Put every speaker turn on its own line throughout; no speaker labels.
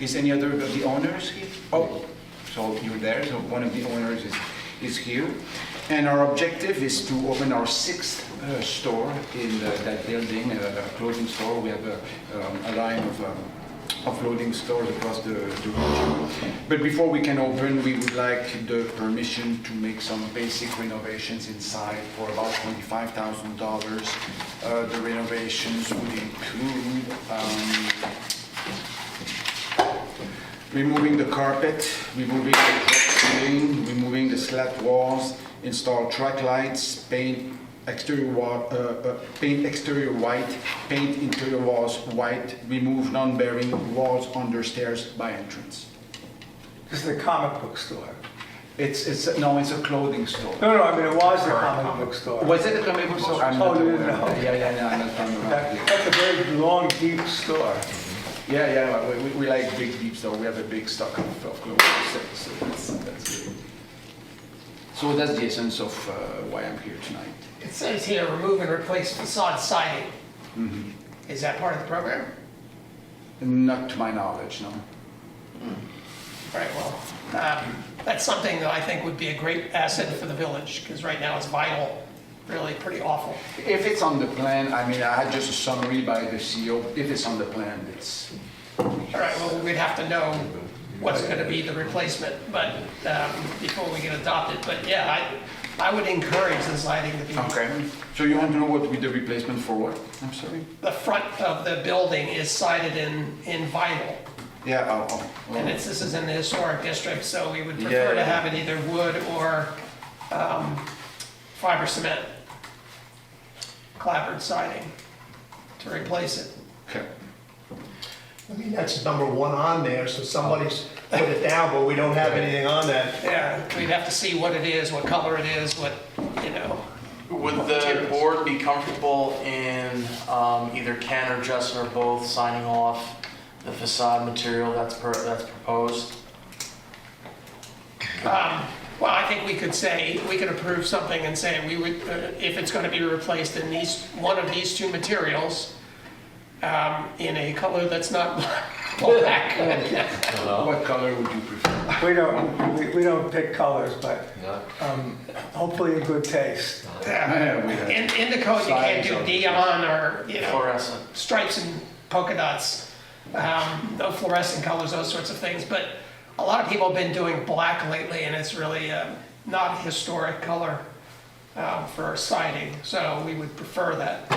Is any other of the owners here? Oh, so you're there, so one of the owners is, is here. And our objective is to open our sixth uh, store in uh, that building, uh, a clothing store. We have a, um, a line of um, offloading stores across the, the region. But before we can open, we would like the permission to make some basic renovations inside for about twenty-five thousand dollars. Uh, The renovations would include um, removing the carpet, removing the drop ceiling, removing the slat walls, install track lights, paint exterior wa, uh, uh, paint exterior white, paint interior walls white, remove non-bearing walls under stairs by entrance.
This is a comic book store.
It's, it's, no, it's a clothing store.
No, no, I mean, it was a comic book store.
Was it a comic book store? I'm
Oh,
not
you
aware.
didn't know.
Yeah, yeah, no, I'm not from around
That-
here.
That's a very long, deep store.
Yeah, yeah, we- we, we like big deep store, we have a big stock of, of clothes, so, so that's, that's good. So that's the essence of uh, why I'm here tonight.
It says here, remove and replace facade siding. Is that part of the program?
Not to my knowledge, no.
Right, well, um, that's something that I think would be a great asset for the village, because right now it's vinyl, really pretty awful.
If it's on the plan, I mean, I had just a summary by the CEO. If it's on the plan, it's,
All right, well, we'd have to know what's going to be the replacement, but, um, before we can adopt it, but yeah, I, I would encourage the siding to be.
okay. So you want to know what with the replacement for what? I'm sorry?
The front of the building is sided in, in vinyl.
Yeah, oh, oh, oh.
And it's, this is in the historic district, so we would
Yeah,
prefer
yeah.
to have it either wood or um, fiber cement, clapboard siding to replace it.
Okay.
I mean, that's number one on there, so somebody's put it down, but we don't have anything on that.
Yeah, we'd have to see what it is, what color it is, what, you know.
Would the board be comfortable in um, either Ken or Justin or both signing off the facade material that's per- that's proposed?
Um, Well, I think we could say, we could approve something and say we would, uh, if it's going to be replaced in these, one of these two materials um, in a color that's not black.
What color would you prefer?
We don't, we- we don't pick colors, but um, hopefully in good taste.
Yeah, we have-
In, in the code, you can't do
Signs
neon or, you know,
Fluorescent?
stripes and polka dots, um, no fluorescent colors, those sorts of things. But a lot of people have been doing black lately, and it's really uh, not a historic color um, for siding, so we would prefer that.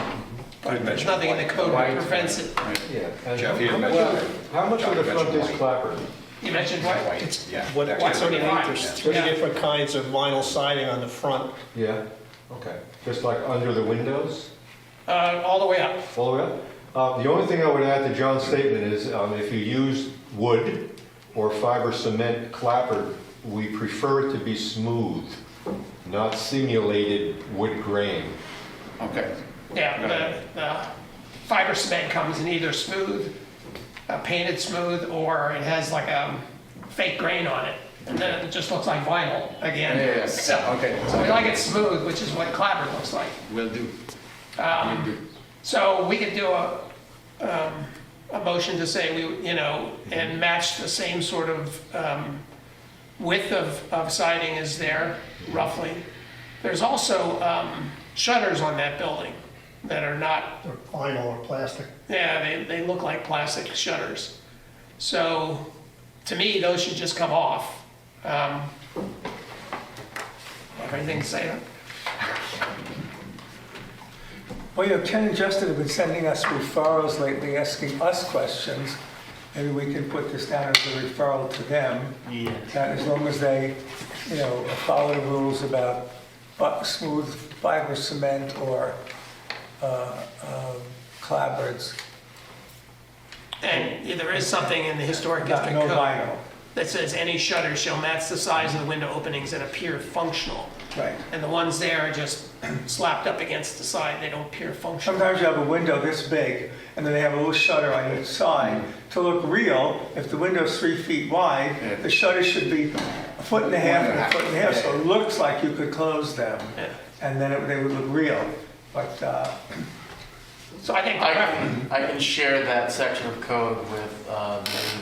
But there's nothing in the code that prevents it.
Jeff, you
Well, How much of the front is clapper?
You mentioned white, white.
Yeah.
What,
White
what
sort of line.
are the
Yeah.
different kinds of vinyl siding on the front?
Yeah, okay. Just like under the windows,
Uh, all the way up.
all the way up? Uh, The only thing I would add to John's statement is um, if you use wood or fiber cement clapper, we prefer it to be smooth, not simulated wood grain.
Okay.
Yeah, the, the fiber cement comes in either smooth, uh, painted smooth, or it has like a fake grain on it. And then it just looks like vinyl again.
Yeah, yeah, yeah.
So,
Okay.
so we like it smooth, which is what clapper looks like.
Will do. Will do.
So we could do a, um, a motion to say we, you know, and match the same sort of, um, width of, of siding is there roughly. There's also, um, shutters on that building that are not
Or vinyl or plastic?
Yeah, they, they look like plastic shutters. So, to me, those should just come off. Um, have Anything to say? on-
Well, you know, Ken and Justin have been sending us referrals lately, asking us questions. Maybe we can put this down as a referral to them.
Yeah.
that Uh, as long as they, you know, follow the rules about bu- smooth fiber cement or uh, uh, clapboards,
And yeah, there is something in the historic
not
district
no
code
vinyl.
that says any shutter shall match the size of the window openings and appear functional.
Right.
And the ones there are just slapped up against the side, they don't appear functional.
Sometimes you have a window this big, and then they have a little shutter on each side. To look real, if the window's three feet
Yeah.
wide, the shutter should be a foot and a half and a foot and a half, so it looks like you could close them.
Yeah.
And then it- they would look real. But uh,
So I think,
I can, I can share that section of code with uh, the